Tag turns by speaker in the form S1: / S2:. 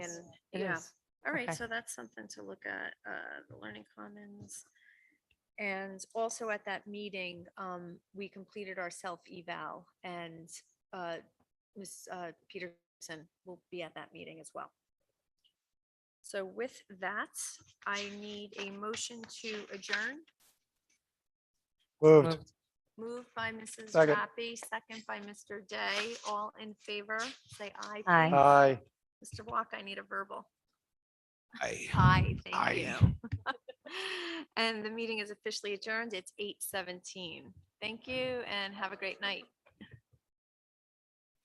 S1: It
S2: Yeah.
S1: is.
S2: All right,
S1: Okay.
S2: so that's something to look at, uh, the Learning Commons. And also at that meeting, um, we completed our self-eval and, uh, Ms. uh, Peterson will be at that meeting as well. So with that, I need a motion to adjourn,
S3: Moved.
S2: moved by Mrs.
S3: Second.
S2: Rapi, second by Mr. Day, all in favor, say aye.
S1: Aye.
S2: please.
S3: Aye.
S2: Mr. Walk, I need a verbal.
S4: I.
S2: Aye, thank
S4: Aye.
S2: you. And the meeting is officially adjourned. It's eight seventeen. Thank you and have a great night.